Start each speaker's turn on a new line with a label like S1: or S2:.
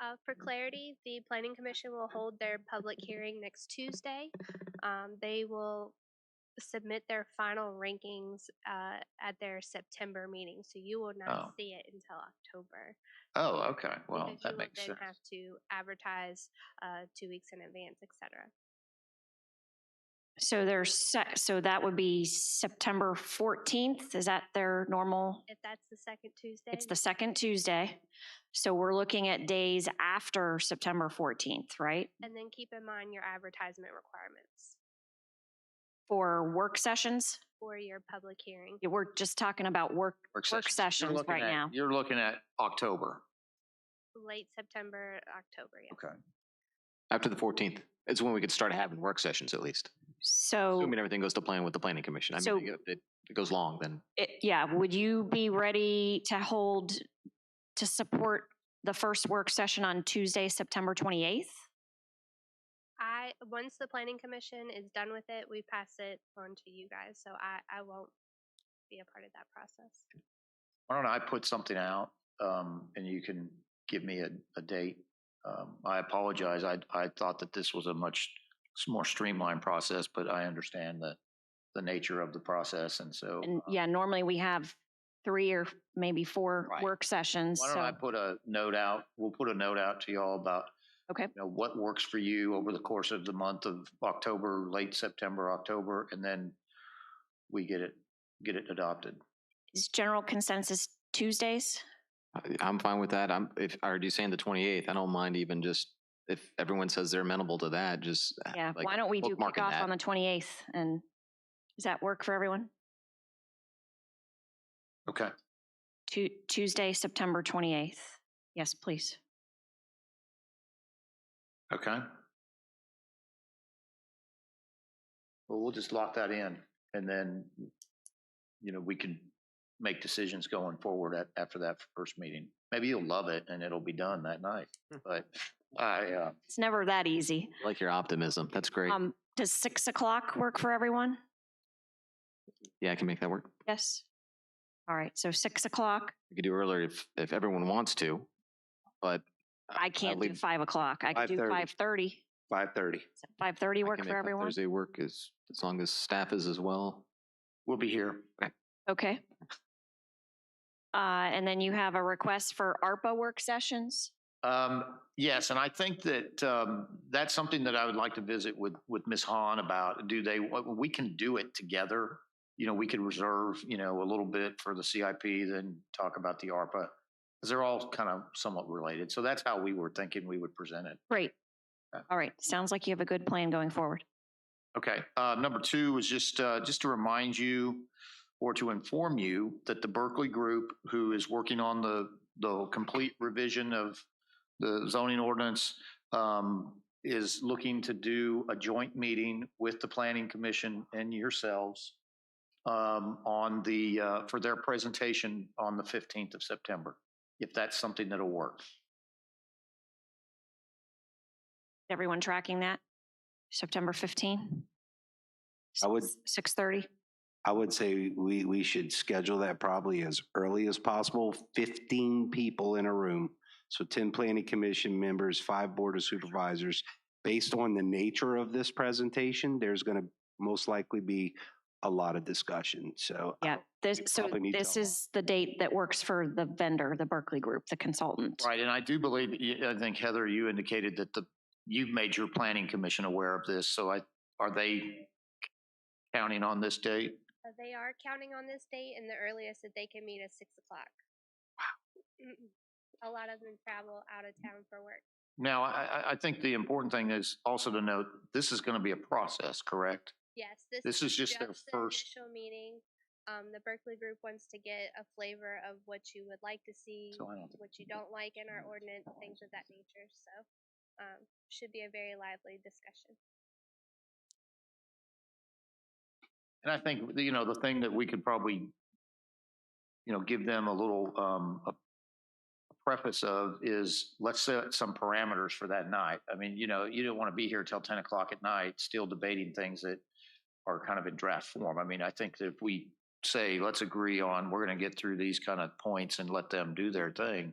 S1: Uh,
S2: Mm-hmm.
S1: for clarity, the planning commission will hold their public hearing next Tuesday. Um, they will submit their final rankings, uh, at their September meeting, so you will
S2: Oh.
S1: not see it until October.
S2: Oh, okay. Well,
S1: because you
S2: that
S1: will
S2: makes
S1: then
S2: sense.
S1: Have to advertise, uh, two weeks in advance, et cetera.
S3: So there's, se- so that would be September 14th. Is that their normal?
S1: If that's the second Tuesday.
S3: It's the second Tuesday. So we're looking at days after September 14th, right?
S1: And then keep in mind your advertisement requirements
S3: For work sessions?
S1: for your public hearing.
S3: Yeah, We're just talking about work, work
S2: You're
S3: sessions
S2: looking
S3: right
S2: at-
S3: now.
S2: You're looking at October.
S1: Late September, October, yeah.
S2: Okay.
S4: After the fourteenth, it's when we could start having work sessions at least,
S3: So,
S4: assuming everything goes to plan with the planning commission. I
S3: So-
S4: mean, if it, it goes long, then
S3: it- yeah, would you be ready to hold, to support the first work session on Tuesday, September 28th?
S1: I, once the planning commission is done with it, we pass it on to you guys, so I, I won't be a part of that process.
S2: Why don't I put something out, um, and you can give me a, a date? Um, I apologize. I, I thought that this was a much s- more streamlined process, but I understand the, the nature of the process. And so.
S3: And
S2: um,
S3: yeah, normally we have three or maybe four
S2: Right.
S3: work sessions.
S2: Why don't I
S3: So,
S2: put a note out? We'll put a note out to y'all about.
S3: Okay.
S2: You know, what works for you over the course of the month of October, late September, October, and then we get it, get it adopted.
S3: is general consensus Tuesdays?
S4: I- I'm fine with that. I'm, if, are you saying the twenty-eighth? I don't mind even just, if everyone says they're amenable to that, just. uh,
S3: Yeah,
S4: like,
S3: why don't we do
S4: bookmarking
S3: kickoff
S4: that.
S3: on the 28th? And does that work for everyone?
S2: Okay.
S3: Tu- Tuesday, September 28th. Yes, please.
S2: Okay. Well, we'll just lock that in and then, you know, we can make decisions going forward at, after that first meeting. Maybe you'll love it and it'll be done that night,
S3: Hmm.
S2: but I, uh,
S3: It's never that easy.
S4: Like your optimism. That's great.
S3: Um, does six o'clock work for everyone?
S4: Yeah, I can make that work.
S3: Yes. All right, so six o'clock.
S4: We could do earlier if, if everyone wants to, but.
S3: I can't do
S4: leave-
S3: five o'clock. I could do
S4: 5:30.
S3: five thirty.
S2: five thirty.
S3: Five
S4: I
S3: thirty
S4: can
S3: work
S4: make
S3: for
S4: that
S3: everyone?
S4: Thursday work as, as long as staff is as well.
S2: We'll be here.
S3: Okay. Uh, and then you have a request for ARPA work sessions?
S2: Um, yes, and I think that, um, that's something that I would like to visit with, with Ms. Hahn about. Do they, uh, we can do it together. You know, we could reserve, you know, a little bit for the CIP, then talk about the ARPA. Cause they're all kind of somewhat related. So that's how we were thinking we would present it.
S3: Great.
S5: Uh,
S2: Yeah.
S3: All right, sounds like you have a good plan going forward.
S2: Okay, uh, number two was just, uh, just to remind you or to inform you that the Berkeley Group, who is working on the, the complete revision of the zoning ordinance, um, is looking to do a joint meeting with the Planning Commission and yourselves um, on the, uh, for their presentation on the 15th of September, if that's something that'll work.
S3: Everyone tracking that? September 15?
S5: I would-
S3: 6:30?
S5: I would say we, we should schedule that probably as early as possible, fifteen people in a room. So ten planning commission members, five board of supervisors. Based on the nature of this presentation, there's gonna most likely be a lot of discussion, so.
S3: Yeah, this,
S5: we
S3: so
S5: probably need to
S3: this
S5: allow-
S3: is the date that works for the vendor, the Berkeley Group, the consultant.
S2: Right, and I do believe, y- I think Heather, you indicated that the, you've made your planning commission aware of this, so I, are they counting on this date?
S1: Uh, They are counting on this date and the earliest that they can meet is six o'clock. Mm-mm. A lot of them travel out
S2: Mm.
S1: of town for work.
S2: Now, I, I, I think the important thing is also to note, this is going to be a process, correct?
S1: Yes, this.
S2: This is just their
S1: the
S2: first-
S1: Initial meeting. Um, the Berkeley group wants to get a flavor of what you would like to see,
S2: So I don't think-
S1: what you don't like in our
S2: Mm.
S1: ordinance, things of that nature, so, um, should be a very lively discussion.
S2: And I think, you know, the thing that we could probably, you know, give them a little, um, a preface of is let's set some parameters for that night. I mean, you know, you don't want to be here till ten o'clock at night, still debating things that are kind of in draft form. I mean, I think that if we say, let's agree on, we're going to get through these kind of points and let them do their thing,